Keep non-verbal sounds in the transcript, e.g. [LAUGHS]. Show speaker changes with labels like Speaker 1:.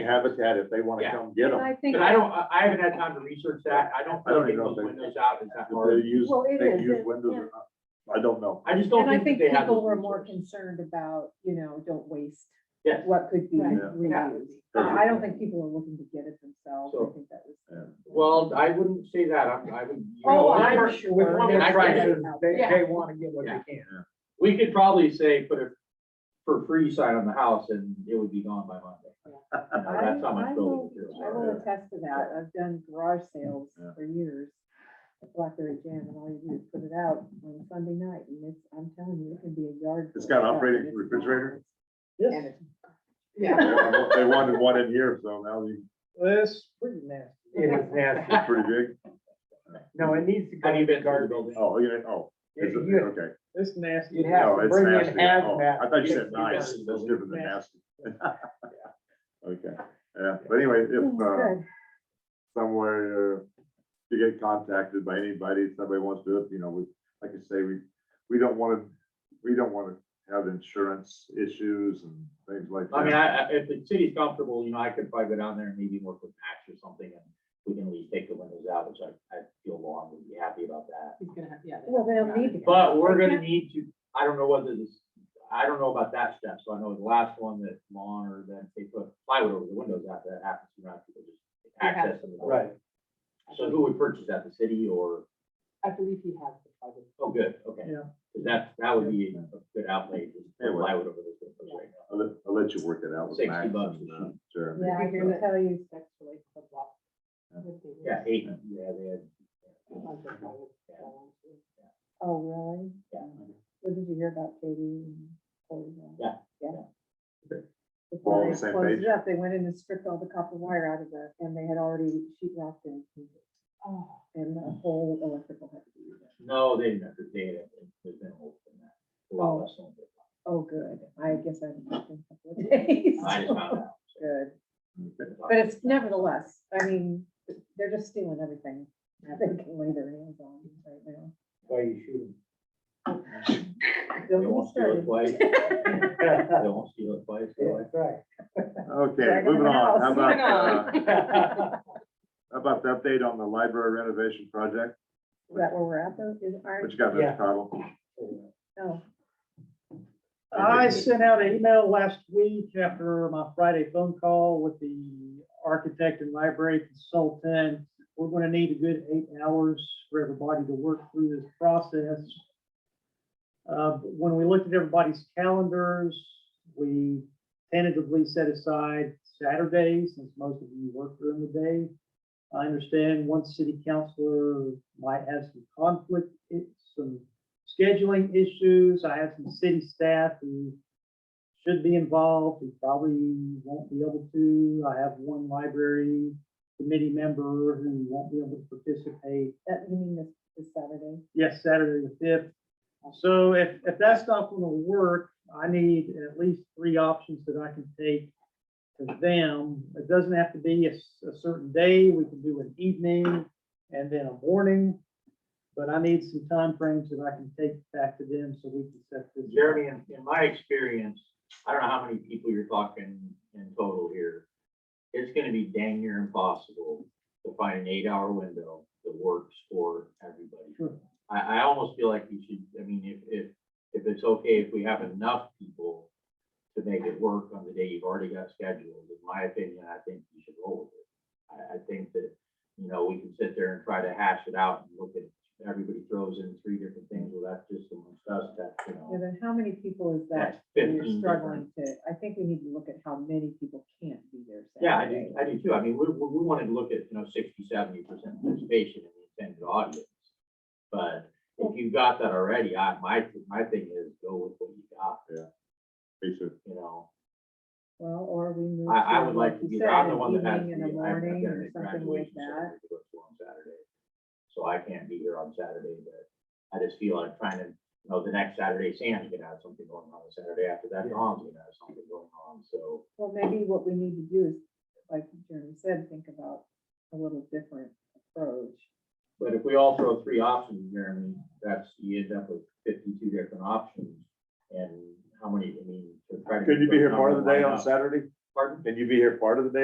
Speaker 1: Habitat, if they wanna
Speaker 2: Yeah.
Speaker 1: come get them,
Speaker 3: I think,
Speaker 2: But I don't, I I haven't had time to research that. I don't.
Speaker 1: I don't
Speaker 2: think
Speaker 1: even know if
Speaker 2: those
Speaker 1: they-
Speaker 2: Windows out is that
Speaker 1: if
Speaker 2: hard.
Speaker 1: they use,
Speaker 3: Well, it
Speaker 1: they
Speaker 3: is,
Speaker 1: use
Speaker 3: it-
Speaker 1: windows or not, I don't know.
Speaker 2: I just don't
Speaker 3: and I
Speaker 2: think
Speaker 3: think
Speaker 2: that they have.
Speaker 3: people
Speaker 2: the
Speaker 3: were more
Speaker 2: resources.
Speaker 3: concerned about, you know, don't waste
Speaker 2: Yes.
Speaker 3: what could be
Speaker 4: Right.
Speaker 3: reused. Uh, I don't think people are looking to get it themselves.
Speaker 2: So-
Speaker 3: I think that was.
Speaker 2: Well, I wouldn't say that. I'm, I would. you know,
Speaker 3: Oh,
Speaker 2: with
Speaker 3: I'm
Speaker 2: Mar- with
Speaker 3: sure.
Speaker 2: Mormon
Speaker 3: there's
Speaker 2: prices,
Speaker 3: something out
Speaker 5: They,
Speaker 3: there.
Speaker 5: they wanna get what
Speaker 2: Yeah.
Speaker 5: they can.
Speaker 2: We could probably say put a for free sign on the house and it would be gone by Monday. You know,
Speaker 3: I
Speaker 2: That's how
Speaker 3: I
Speaker 2: much
Speaker 3: will-
Speaker 2: building materials
Speaker 3: I
Speaker 2: are.
Speaker 3: will attest to that. I've done garage sales
Speaker 1: Yeah.
Speaker 3: for years. at Blackberry Jam and all you do is put it out on Sunday night and it's, I'm telling you, it can be a yard.
Speaker 1: It's
Speaker 3: full of
Speaker 1: got an
Speaker 3: stuff,
Speaker 1: operating
Speaker 3: and it's
Speaker 1: refrigerator?
Speaker 3: not. And
Speaker 5: This,
Speaker 3: it's-
Speaker 1: They
Speaker 5: yeah,
Speaker 1: want- they wanted one in here, so now you-
Speaker 5: this pretty nasty. It is nasty.
Speaker 1: it's pretty big,
Speaker 5: No, it needs to go
Speaker 2: Have you been
Speaker 5: in the
Speaker 2: to the
Speaker 5: garbage.
Speaker 2: building?
Speaker 1: oh, you didn't, oh, is
Speaker 5: You-
Speaker 1: it,
Speaker 5: you-
Speaker 1: okay.
Speaker 5: It's nasty.
Speaker 2: You'd
Speaker 5: You'd
Speaker 2: have
Speaker 5: have
Speaker 1: No,
Speaker 5: to
Speaker 1: it's
Speaker 5: bring in
Speaker 1: nasty. Oh,
Speaker 5: hazmat.
Speaker 1: I thought you said
Speaker 2: It's
Speaker 1: nice,
Speaker 2: nasty.
Speaker 1: that's different than
Speaker 5: Nasty.
Speaker 1: nasty.
Speaker 5: [LAUGHS]
Speaker 1: Okay, yeah, but anyway, if,
Speaker 3: Mm,
Speaker 1: uh,
Speaker 3: [LAUGHS] good.
Speaker 1: somewhere, uh, to get contacted by anybody, if somebody wants to, do it, you know, we, like I say, we, we don't wanna, we don't wanna have insurance issues and things like that.
Speaker 2: I mean, I, I- if the city's comfortable, you know, I could probably go down there and maybe work with Max or something and we can at least take the windows out, which I, I feel Lauren would be happy about that.
Speaker 4: He's gonna have, yeah.
Speaker 3: Well, they don't need to.
Speaker 2: But we're
Speaker 3: They
Speaker 2: gonna need to, I don't know whether this, I don't know about that step, so I know the last one that Lon or then they put plywood over the windows after that happens, you know, people just access them.
Speaker 5: Right.
Speaker 2: So who would purchase that, the city or,
Speaker 4: I believe he has the private.
Speaker 2: oh, good, okay.
Speaker 5: Yeah.
Speaker 2: 'Cause that, that would be a good outlay, just put
Speaker 1: Anyway.
Speaker 2: plywood over those windows right now.
Speaker 1: I'll let, I'll let you work it out with
Speaker 2: 60
Speaker 1: Max
Speaker 2: bucks
Speaker 1: and,
Speaker 2: a
Speaker 1: uh,
Speaker 2: sheet.
Speaker 1: Jeremy.
Speaker 3: Yeah, I
Speaker 4: Figure
Speaker 3: can
Speaker 4: that-
Speaker 3: tell you.
Speaker 4: Actually, the block. With the-
Speaker 2: Yeah, eight, yeah, they had.
Speaker 4: with the private salon, too.
Speaker 3: Oh, really?
Speaker 2: Yeah.
Speaker 3: What did you hear about Katie and Corey? and-
Speaker 2: Yeah, yeah.
Speaker 3: Yeah.
Speaker 1: We're all on
Speaker 3: Before they
Speaker 1: the same
Speaker 3: closed
Speaker 1: page.
Speaker 3: it up, they went in and stripped all the copper wire out of the, and they had already sheet rocked and,
Speaker 4: Oh,
Speaker 3: and the whole electrical had to be. redone.
Speaker 2: No, they didn't have to date it. There's been a whole thing that. a lot less than that.
Speaker 3: Oh, good. I guess I haven't looked in a couple of days.
Speaker 2: I just found out.
Speaker 3: Good.
Speaker 1: Okay.
Speaker 3: But it's nevertheless, I mean, they're just stealing everything they can lay their hands on right now.
Speaker 5: Why you shoot
Speaker 2: They
Speaker 3: Don't get
Speaker 2: won't steal it
Speaker 3: started.
Speaker 2: twice.
Speaker 5: them?
Speaker 2: They won't steal it twice. so
Speaker 5: Yeah, that's
Speaker 1: Okay,
Speaker 3: Dragon
Speaker 1: moving on,
Speaker 3: house.
Speaker 1: how about, uh,
Speaker 5: right.
Speaker 1: how about the update on the library renovation project?
Speaker 3: Is that where we're at though? Is, are,
Speaker 1: What you got,
Speaker 5: Yeah.
Speaker 1: Mr. Cottle?
Speaker 3: oh,
Speaker 5: I sent out an email last week after my Friday phone call with the architect and library consultant. We're gonna need a good eight hours for everybody to work through this process. Uh, when we looked at everybody's calendars, we tentatively set aside Saturday, since most of you work during the day. I understand one city councilor might have some conflict, eh, some scheduling issues. I have some city staff who should be involved, who probably won't be able to. I have one library committee member who won't be able to participate.
Speaker 3: that, you mean this, this Saturday?
Speaker 5: Yes, Saturday the fifth. So if, if that's not gonna work, I need at least three options that I can take to them. It doesn't have to be a, s- a certain day. We can do an evening and then a morning. But I need some time frames that I can take back to them so we can set this.
Speaker 2: Jeremy, in, in my experience, I don't know how many people you're talking in total here. It's gonna be dang near impossible to find an eight-hour window that works for everybody.
Speaker 5: Sure.
Speaker 2: I, I almost feel like you should, I mean, if, if, if it's okay, if we have enough people to make it work on the day you've already got scheduled, in my opinion, I think you should roll with it. I, I think that, you know, we can sit there and try to hash it out and look at, everybody throws in three different things, well, that's just amongst us, that's, you
Speaker 3: Yeah,
Speaker 2: know.
Speaker 3: then how many people is that?
Speaker 2: That's
Speaker 3: we
Speaker 2: 15
Speaker 3: are struggling
Speaker 2: different.
Speaker 3: to, I think we need to look at how many people can't be there
Speaker 2: Yeah, I
Speaker 3: Saturday.
Speaker 2: do, I do too. I mean, we, we we wanted to look at, you know, 60, 70 percent participation in the intended audience. But if you've got that already, I, my, my thing is go with what you got,
Speaker 1: Lisa?
Speaker 2: you know?
Speaker 3: Well, or we move.
Speaker 2: I, I
Speaker 3: to,
Speaker 2: would like to
Speaker 3: you
Speaker 2: be,
Speaker 3: said,
Speaker 2: there. I'm the
Speaker 3: an
Speaker 2: one that has to be.
Speaker 3: evening and
Speaker 2: I've-
Speaker 3: a
Speaker 2: I've
Speaker 3: morning
Speaker 2: got
Speaker 3: or
Speaker 2: a
Speaker 3: something like
Speaker 2: graduation
Speaker 3: that.
Speaker 2: ceremony to go to on Saturday, So I can't be here on Saturday, but I just feel like trying to, you know, the next Saturday, Sam's gonna have something going on, the Saturday after that, Don's gonna have something going on, so.
Speaker 3: Well, maybe what we need to do is, like Jeremy said, think about a little different approach.
Speaker 2: But if we all throw three options, Jeremy, that's, you end up with fifty-two different options, and how many, I mean. to try to
Speaker 1: Could you
Speaker 2: get
Speaker 1: be
Speaker 2: those
Speaker 1: here part of
Speaker 2: numbers
Speaker 1: the day
Speaker 2: lined
Speaker 1: on
Speaker 2: up.
Speaker 1: Saturday?
Speaker 2: Pardon?
Speaker 1: Can you be here part of the day